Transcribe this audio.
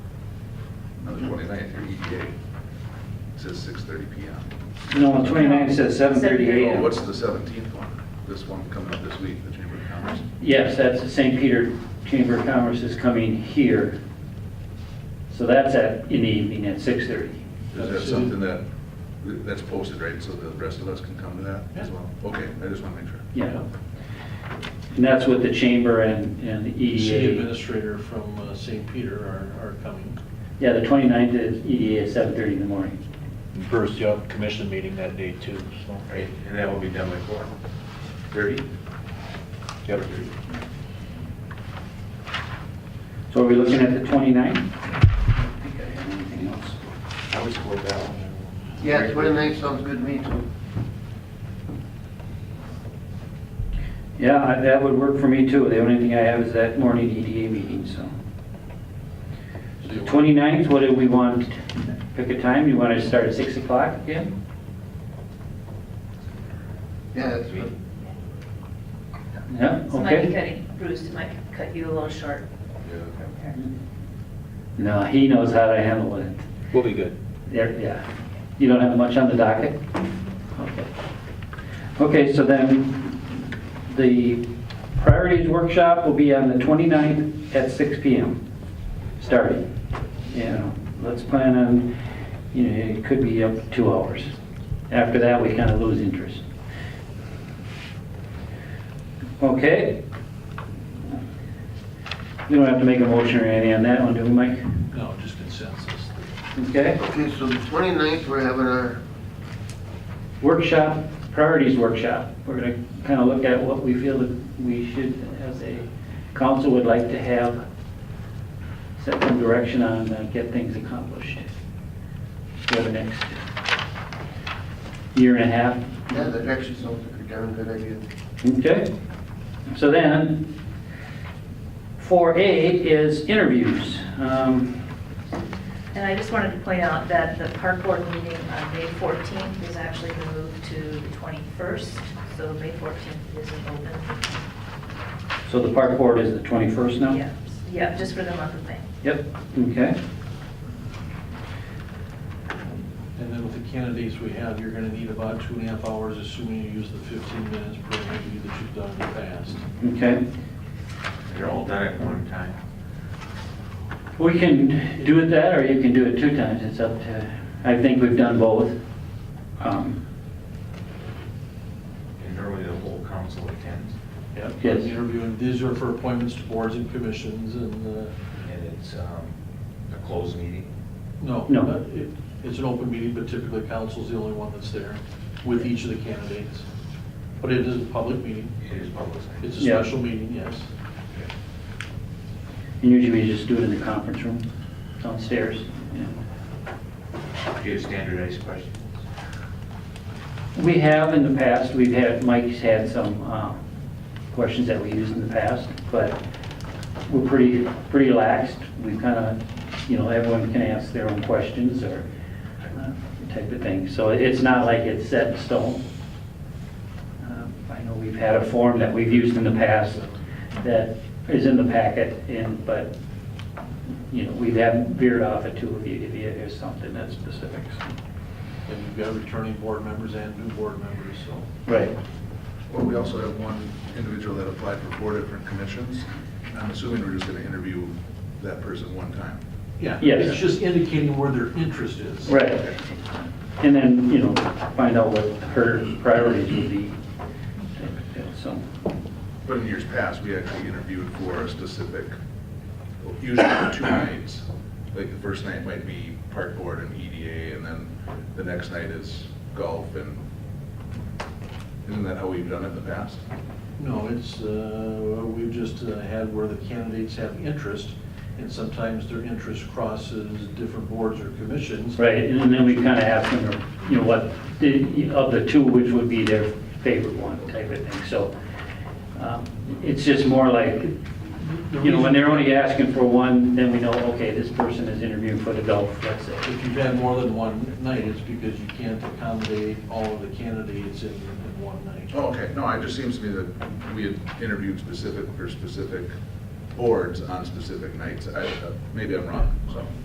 on the 29th, your EDA says 6:30 PM. No, 29 says 7:30 Oh, a.m. What's the 17th one? This one coming up this week, the Chamber of Commerce? Yes, that's the St. Peter Chamber of Commerce is coming here. So that's at, in the evening at 6:30. Is that something that, that's posted, right, so the rest of us can come to that as well? Okay, I just want to make sure. Yeah. And that's what the chamber and, and the E City EDA. administrator from uh, St. Peter are, are coming. Yeah, the 29th is EDA at 7:30 in the morning. Bruce Young commission meeting that day too, so. Right, and that will be done by four thirty? Yep. So are we looking at the 29th? I don't think I have anything else. I would support that one. Yeah, twenty-nine sounds good to me too. Yeah, I- that would work for me too. The only thing I have is that morning EDA meeting, so. So you want- 29th, what do we want? Pick a time. You want to start at 6 o'clock again? Yeah, that's good. Yeah, So might be okay. cutting, Bruce might cut you a little short. Yeah. No, he knows how to handle it. We'll be good. There, yeah. You don't have much on the docket? Okay. Okay, so then the priorities workshop will be on the 29th at 6 PM, starting. You know, let's plan on, you know, it could be up to two hours. After that, we kind of lose interest. Okay? We don't have to make a motion or anything on that one, do we, Mike? No, just consensus. Okay? Okay, so the 29th we're having our, workshop, priorities workshop. We're going to kind of look at what we feel that we should, as a council, would like to have, set some direction on, uh, get things accomplished for the next year and a half. yeah, that actually sounds like a darn good idea. Okay? So then, 4A is interviews. Um, And I just wanted to point out that the park board meeting on May 14th is actually moved to the 21st, so May 14th isn't open. So the park board is the 21st now? Yeah, Yeah, just for the month of May. Yep, okay. And then with the candidates we have, you're gonna need about two and a half hours, assuming you use the 15 minutes per interview that you've done in the past. Okay. They're all done at one time. We can do it that, or you can do it two times, it's up to, I think we've done both. Um, And normally the whole council attends. Yep. Yes. Interviewing, these are for appointments to boards and commissions and, uh, And it's, um, a closed meeting. no. No. uh, it- It's an open meeting, but typically council's the only one that's there with each of the candidates. But it is a public meeting. It is publicized. It's a Yeah. special meeting, yes. And usually we just do it in the conference room downstairs. yeah. Do you have standardized questions? We have in the past, we've had, Mike's had some uh, questions that we used in the past, but we're pretty, pretty relaxed. We kind of, you know, everyone can ask their own questions or uh, type of thing. So it's not like it's set in stone. Uh, I know we've had a form that we've used in the past that is in the packet, and, but, you know, we haven't veered off it too if you, if you there's something that's specific. And you've got returning board members and new board members, so. Right. Well, we also have one individual that applied for four different commissions. I'm assuming we're just going to interview that person one time. Yeah, Yes. it's just indicating where their interest is. Right. And then, you know, find out what her priorities would be. So, But in years past, we actually interviewed for a specific, usually for two nights. Like the first night might be park board and EDA, and then the next night is golf and, isn't that how we've done it in the past? No, it's, uh, we've just uh, had where the candidates have interest, and sometimes their interest crosses different boards or commissions. right, and then we kind of ask them, you know, what, the- of the two, which would be their favorite one type of thing. So um, it's just more like, The you know, when reason- they're only asking for one, then we know, okay, this person is interviewing for the golf, let's say. If you've had more than one night, it's because you can't accommodate all of the candidates in, in one night. Oh, okay, no, it just seems to me that we had interviewed specific, for specific boards on specific nights. I, uh, maybe I'm wrong, so.